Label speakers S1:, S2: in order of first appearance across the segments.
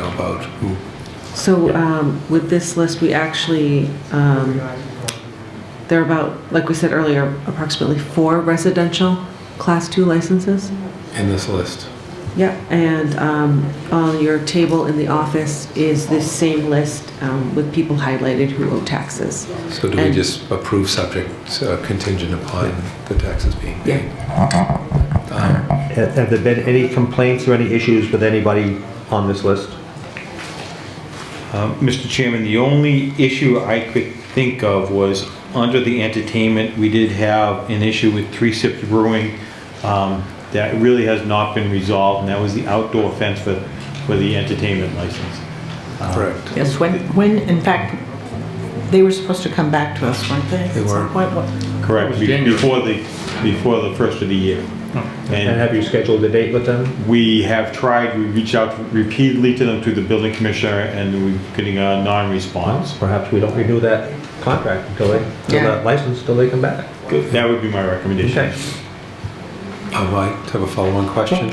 S1: about who,
S2: So um, with this list, we actually, um, there are about, like we said earlier, approximately four residential Class 2 licenses.
S1: in this list.
S2: Yep. And um, on your table in the office is this same list um, with people highlighted who owe taxes.
S1: So do we
S2: And-
S1: just approve subject uh, contingent upon the taxes being paid? Um,
S3: Have have there been any complaints or any issues with anybody on this list?
S4: Um, Mr. Chairman, the only issue I could think of was under the entertainment, we did have an issue with Three Sips Brewing um, that really has not been resolved, and that was the outdoor fence for, for the entertainment license.
S5: Uh-huh.
S1: Correct.
S5: Yes, when, when, in fact, they were supposed to come back to us, weren't they?
S1: They
S5: At some
S1: were.
S5: point, what-
S4: Correct, be-
S6: January.
S4: before the, before the first of the year.
S3: And have you scheduled a date with them?
S4: We have tried, we reached out repeatedly to them through the building commissioner, and we're getting a non-response.
S3: Perhaps we don't renew that contract until they, until
S5: Yeah.
S3: that license, until they come back.
S4: That would be my recommendation.
S3: Okay.
S1: Um, I have a follow-on question.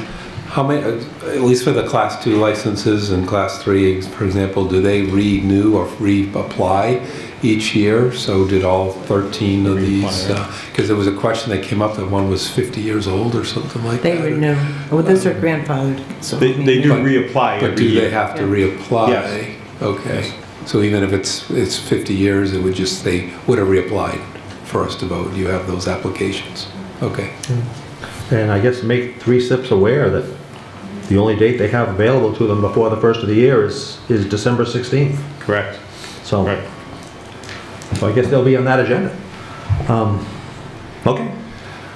S1: How many, uh, at least for the class two licenses and class three, for example, do they renew or reapply each year? So did all 13 of these?
S4: Reapply, right.
S1: Because there was a question that came up that one was 50 years old or something like
S5: They
S1: that.
S5: renew. Well, those are grandfathered, so. I
S4: They,
S5: mean,
S4: they do
S1: But-
S4: reapply
S1: But
S4: every
S1: do they
S4: year.
S1: have to reapply?
S4: Yes.
S1: Okay, so even if it's, it's 50 years, it would just, they would have reapplied for us to vote, you have those applications? Okay,
S3: And I guess make Three Sips aware that the only date they have available to them before the first of the year is, is December 16th.
S4: Correct,
S3: So,
S4: correct.
S3: so I guess they'll be on that agenda. Um, Okay.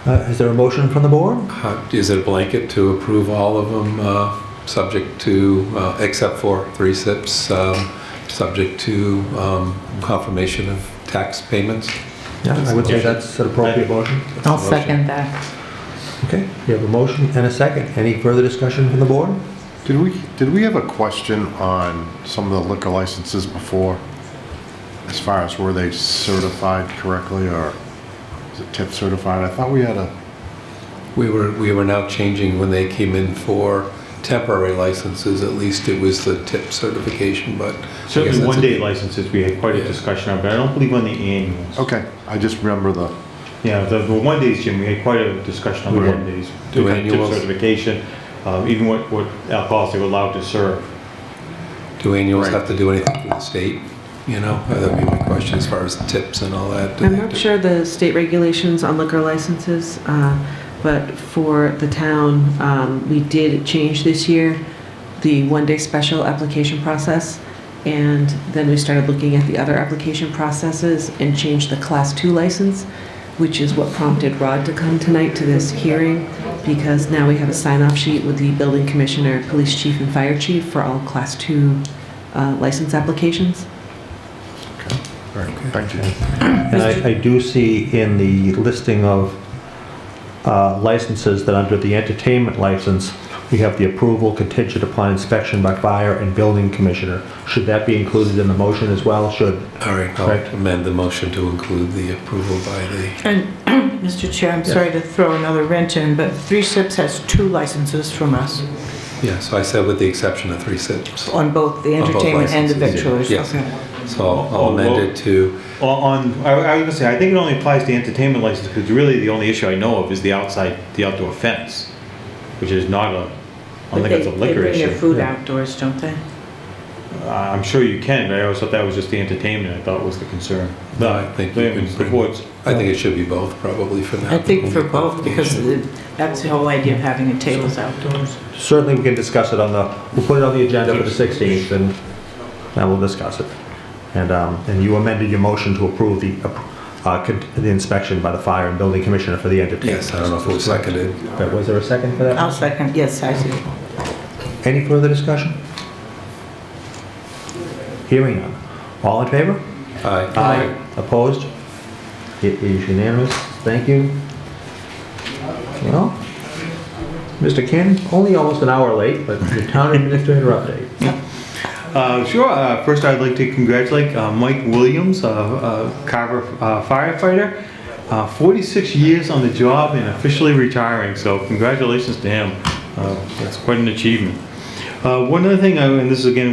S3: Uh, Is there a motion from the board?
S1: How- is it a blanket to approve all of them, uh, subject to, uh, except for three SIPs, um, subject to um, confirmation of tax payments?
S3: Yeah, I would say that's an appropriate motion.
S5: I'll second that.
S3: Okay, we have a motion and a second. Any further discussion from the board?
S7: Did we, did we have a question on some of the liquor licenses before? As far as were they certified correctly or is it tip certified? I thought we had a,
S1: We were, we were now changing when they came in for temporary licenses, at least it was the tip certification, but. I guess
S4: Certainly
S1: that's a-
S4: one-day licenses, we had quite a
S1: Yeah.
S4: discussion on, but I don't believe on the annuals.
S7: okay, I just remember the,
S4: Yeah, the, the one-days, Jim, we had quite a discussion on the
S1: Right.
S4: one-days.
S1: Do
S4: Tip
S1: annuals.
S4: Certification, um, even what, what alcohols they were allowed to serve.
S1: Do annuals have to do anything for the state? You know, that'd be my question as far as tips and all that. Do
S2: I'm
S1: they
S2: not
S1: do-
S2: sure the state regulations on liquor licenses, uh, but for the town, um, we did change this year the one-day special application process, and then we started looking at the other application processes and changed the Class 2 license, which is what prompted Rod to come tonight to this hearing, because now we have a sign-off sheet with the building commissioner, police chief, and fire chief for all Class 2 uh, license applications.
S7: thank you.
S3: And I, I do see in the listing of uh, licenses that under the entertainment license, we have the approval contingent upon inspection by fire and building commissioner. Should that be included in the motion as well? Should,
S1: All right, I'll
S3: Correct.
S1: amend the motion to include the approval by the,
S5: And, Mr. Chair, I'm sorry to throw another wrench in, but Three Sips has two licenses from us
S1: yeah, so I said with the exception of three sips. So
S5: on both the
S1: On both
S5: entertainment and the
S1: licenses,
S5: victuals.
S1: yes.
S5: Okay.
S1: I'll- I'll amend it to,
S4: On, on- I, I was gonna say, I think it only applies to entertainment license, because really the only issue I know of is the outside, the outdoor fence, which is not a, I don't
S5: But
S4: think it's a
S5: they-
S4: liquor
S5: They bring their
S4: issue.
S5: food
S3: Yeah.
S5: outdoors, don't they?
S4: I- Uh, I'm sure you can, but I always thought that was just the entertainment, I thought was the concern.
S1: No, I think you
S4: But it
S1: can
S4: was
S1: bring-
S4: The board's-
S1: I think it should be both probably for now.
S5: I think for both, because the- that's the whole idea of having a tables outdoors.
S3: certainly we can discuss it on the, we'll put it on the agenda for the 16th and, and we'll discuss it. And, um, and you amended your motion to approve the, uh, con- the inspection by the fire and building commissioner for the entertainment.
S1: Yes, I don't know if it was seconded.
S3: But Was there a second for that?
S2: Oh.
S5: I'll second, yes, I do.
S3: Any further discussion? Hearing none. All in favor?
S1: Aye.
S3: Opposed? It is unanimous. Thank you. Well, Mr. Cannon, only almost an hour late, but the town administrator update.
S4: Uh, sure. Uh, first, I'd like to congratulate uh, Mike Williams, a uh, uh, Carver uh, firefighter. Uh, 46 years on the job and officially retiring, so congratulations to him. Uh, that's quite an achievement. Uh, one other thing, I, and this is again